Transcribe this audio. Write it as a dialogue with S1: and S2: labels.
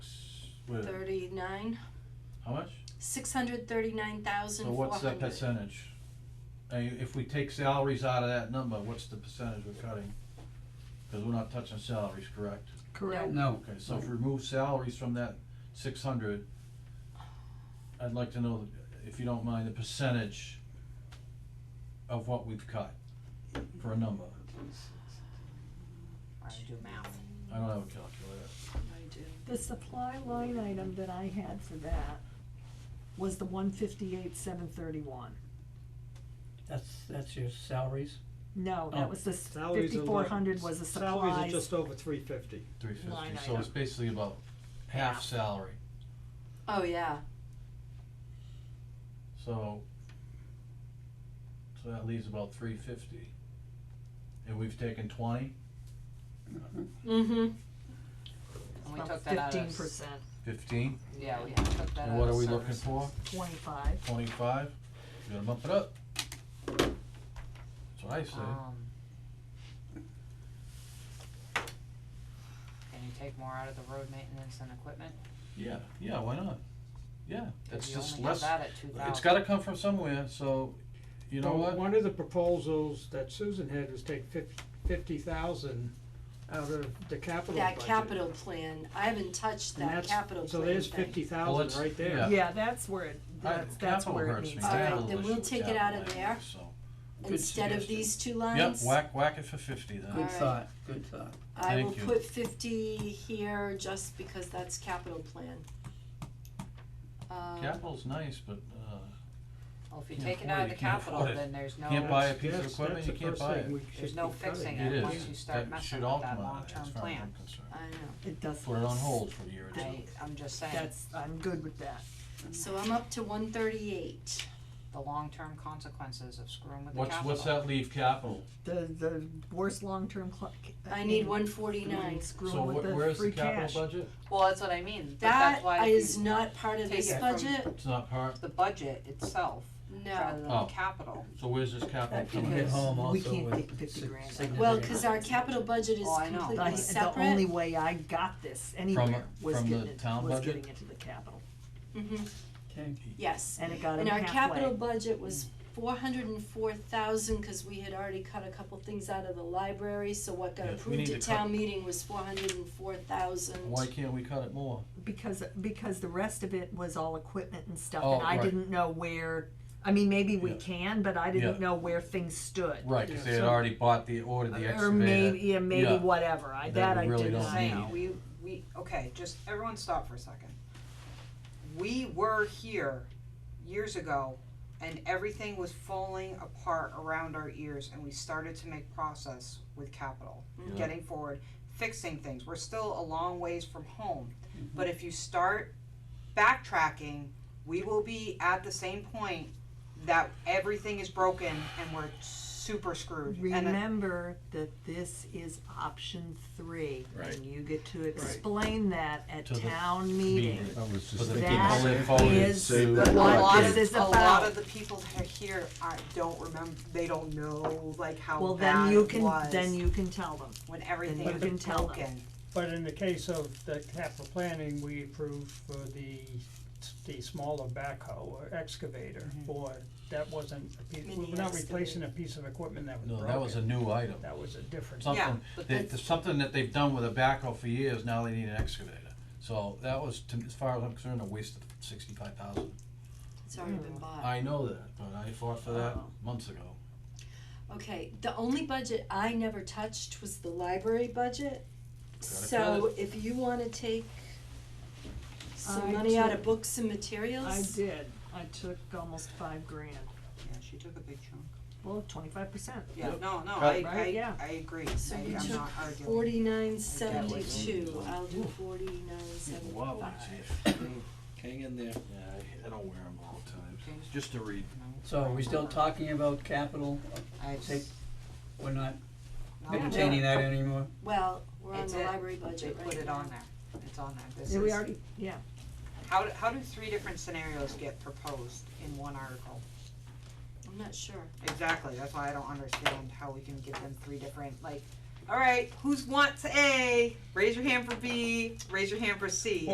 S1: with,
S2: thirty-nine,
S1: how much?
S2: six hundred thirty-nine thousand
S1: So
S2: four
S1: what's the
S2: hundred.
S1: percentage? I mean, if we take salaries out of that number, what's the percentage we're cutting? Cause we're not touching salaries, correct?
S2: Correct.
S3: No,
S1: Okay, so if we remove salaries from that six hundred, I'd like to know, if you don't mind, the percentage of what we've cut for a number.
S4: I do math.
S1: I don't have a calculator.
S5: The supply line item that I had for that was the one fifty-eight, seven thirty-one.
S3: that's, that's your salaries.
S5: No,
S3: Oh.
S5: that was the
S6: Salaries are like-
S5: fifty-four hundred was the
S6: Salaries are
S5: supplies.
S6: just over three fifty.
S1: Three
S5: Line
S1: fifty, so it's
S5: item.
S1: basically about half
S4: Half.
S1: salary,
S2: Oh, yeah,
S1: so. So that leaves about three fifty. And we've taken twenty,
S2: mm-hmm,
S4: And we took that out of.
S5: Fifteen
S4: s-
S5: percent,
S1: fifteen,
S4: Yeah, we took that out of.
S1: and what are we looking
S4: services.
S1: for?
S5: twenty-five.
S1: Twenty-five, you gotta bump it up. That's what I say,
S4: Um. Can you take more out of the road maintenance and equipment?
S1: yeah, yeah, why not? Yeah,
S4: 'Cause
S1: it's
S4: you
S1: just
S4: only have
S1: less,
S4: that at two thousand.
S1: it's gotta come from somewhere, so, you know
S6: Well,
S1: what?
S6: One of the proposals that Susan had was take fif- fifty thousand out of the capital
S2: that
S6: budget.
S2: capital plan, I haven't touched
S6: And
S2: that
S6: that's-
S2: capital plan
S6: So there's
S2: thing.
S6: fifty
S1: Well,
S6: thousand
S1: let's-
S6: right
S1: Yeah. Uh,
S6: there.
S5: Yeah, that's where it, that's, that's
S1: Capital
S5: where it
S1: hurts
S5: needs
S1: me,
S5: to go.
S2: All right,
S1: capital
S2: then
S1: issue,
S2: we'll take it out of
S1: capital
S2: there.
S1: issues, so.
S3: Good
S2: Instead of
S3: suggestion.
S2: these two
S1: Yep,
S2: lines,
S1: whack, whack it for fifty then.
S3: Good
S2: Alright.
S3: thought, good thought.
S2: I will
S1: thank you.
S2: put fifty here just because that's capital plan. Um,
S1: Capital's nice, but, uh,
S4: Well, if you
S1: Can't
S4: take it
S1: afford
S4: out
S1: it,
S4: of the
S1: you can't
S4: capital,
S1: afford it.
S4: then there's no.
S1: Can't buy a
S6: That's-
S1: piece of
S6: that's-
S1: equipment,
S6: that's
S1: you
S6: the
S1: can't
S6: first
S1: buy
S6: thing
S1: it.
S6: we should
S4: There's no
S6: be cutting.
S4: fixing
S1: it
S4: Yeah, once
S1: is,
S4: you start
S1: that
S4: messing
S1: should
S4: with
S1: all
S4: that
S1: come out of there,
S4: long-term
S1: as far as I'm
S4: plan.
S1: concerned.
S2: I know,
S5: It does.
S1: Put it on hold for a year or
S4: I,
S1: two.
S4: I'm just saying,
S5: That's, I'm good with that.
S2: so I'm up to one thirty-eight,
S4: the long-term consequences of screwing with the
S1: What's,
S4: capital.
S1: what's that leave capital?
S5: The, the worst long-term clock.
S2: I need one forty-nine.
S1: So
S5: Screwing with
S1: wh-
S5: the
S1: where's the
S5: free
S1: capital
S5: cash.
S1: budget?
S4: Well, that's what I mean, but that's
S2: That
S4: why if
S2: is
S4: you,
S2: not part of
S4: take
S2: this
S4: it from-
S2: budget,
S1: It's not part,
S4: the budget itself, rather
S2: no.
S4: than
S1: Oh.
S4: the capital,
S1: so where's this capital
S5: That
S1: coming
S5: can
S1: in?
S3: Get home
S5: We
S3: also
S5: can't
S3: with
S5: get 50
S3: sig-
S5: grand out of
S3: significant-
S2: Well, cause our capital budget is
S4: Oh, I know.
S5: I,
S2: completely
S5: the only
S2: separate.
S5: way I got this anywhere was
S1: from the
S5: getting it,
S1: town
S5: was
S1: budget?
S5: getting it to the capital,
S2: Mhm,
S3: Okay,
S2: yes,
S5: and it got him
S2: and our
S5: halfway.
S2: capital budget was four hundred and four thousand, cause we had already cut a couple things out of the library, so what got
S1: Yes, we need
S2: approved
S1: to
S2: at
S1: cut-
S2: town meeting was four hundred and four thousand.
S1: Why can't we cut it more?
S5: Because, because the rest of it was all equipment and stuff,
S1: Oh,
S5: and I
S1: right.
S5: didn't know where, I mean, maybe we
S1: Yeah.
S5: can, but I
S1: Yeah.
S5: didn't know where things stood.
S1: Right, cause
S6: Yeah,
S1: they had
S6: so-
S1: already bought the, ordered the
S5: Or maybe,
S1: excavator.
S5: yeah, maybe
S1: Yeah.
S5: whatever, I,
S1: That
S5: that
S1: we
S5: I
S1: really
S5: did
S1: don't
S5: not
S1: need.
S5: know.
S4: saying, we, we, okay, just, everyone stop for a second. We were here years ago and everything was falling apart around our ears and we started to make process with capital,
S1: Yeah.
S4: getting forward, fixing things, we're still a long ways from home. But if you start backtracking, we will be at the same point that everything is broken and we're super screwed. And it-
S5: Remember that this is option three,
S1: Right.
S5: and you get to explain that at
S1: To the
S5: town meeting.
S1: meeting.
S7: I was
S1: For
S7: just
S1: the
S7: thinking.
S5: That
S1: people that
S5: is
S1: voted,
S7: Save that
S5: what
S4: a
S7: Well,
S4: lot
S5: this
S4: of,
S5: is
S4: a lot
S5: about.
S4: of the people he- here I don't remember. They don't know like how
S5: Well,
S4: bad
S5: then you
S4: it
S5: can,
S4: was
S5: then you can tell them.
S4: when everything
S5: you
S4: was
S5: can tell them.
S4: broken.
S6: But in the case of the capital planning, we approved for the, the smaller backhoe or excavator for, that wasn't a piece,
S2: Mini
S6: we're not replacing
S2: excavator.
S6: a piece of equipment that was
S1: no,
S6: broken.
S1: that was a new item.
S6: That was a different.
S1: Something,
S4: but
S1: they,
S4: that's-
S1: something that they've done with a backhoe for years, now they need an excavator. So that was, to- as far as I'm concerned, a waste of sixty-five thousand.
S2: It's already
S4: Hmm.
S2: been bought.
S1: I know that, but I fought for that
S5: Oh.
S1: months ago.
S2: Okay, the only budget I never touched was the library budget.
S1: cut
S2: So if you wanna take some
S5: I
S2: money out of
S5: took-
S2: books and materials.
S5: I did, I took almost five grand,
S4: Yeah, she took a big chunk.
S5: well, twenty-five percent.
S4: Yeah,
S1: Yep.
S4: no, no,
S1: Cut.
S4: I,
S5: Right,
S4: I,
S5: yeah.
S4: I agree.
S2: So
S4: I,
S2: you
S4: I'm
S2: took
S4: not arguing.
S2: forty-nine
S4: that was-
S2: seventy-two, I'll do forty-nine
S1: Wow,
S2: seventy-five.
S3: hang in there.
S1: Yeah, I, I don't wear them all the time,
S4: Okay.
S1: just to read.
S3: So are we still talking about capital?
S4: I
S3: Take, we're not
S4: no,
S3: entertaining that anymore?
S2: Well, we're on
S4: It's
S2: the
S4: it.
S2: library
S4: They
S2: budget right
S4: put it
S2: now.
S4: on there. It's on there. This
S5: Yeah, we
S4: is-
S5: already, yeah,
S4: How do, how do three different scenarios get proposed in one article?
S2: I'm not sure.
S4: Exactly. That's why I don't understand how we can give them three different like. All right, who's wants A? Raise your hand for B. Raise your hand for C.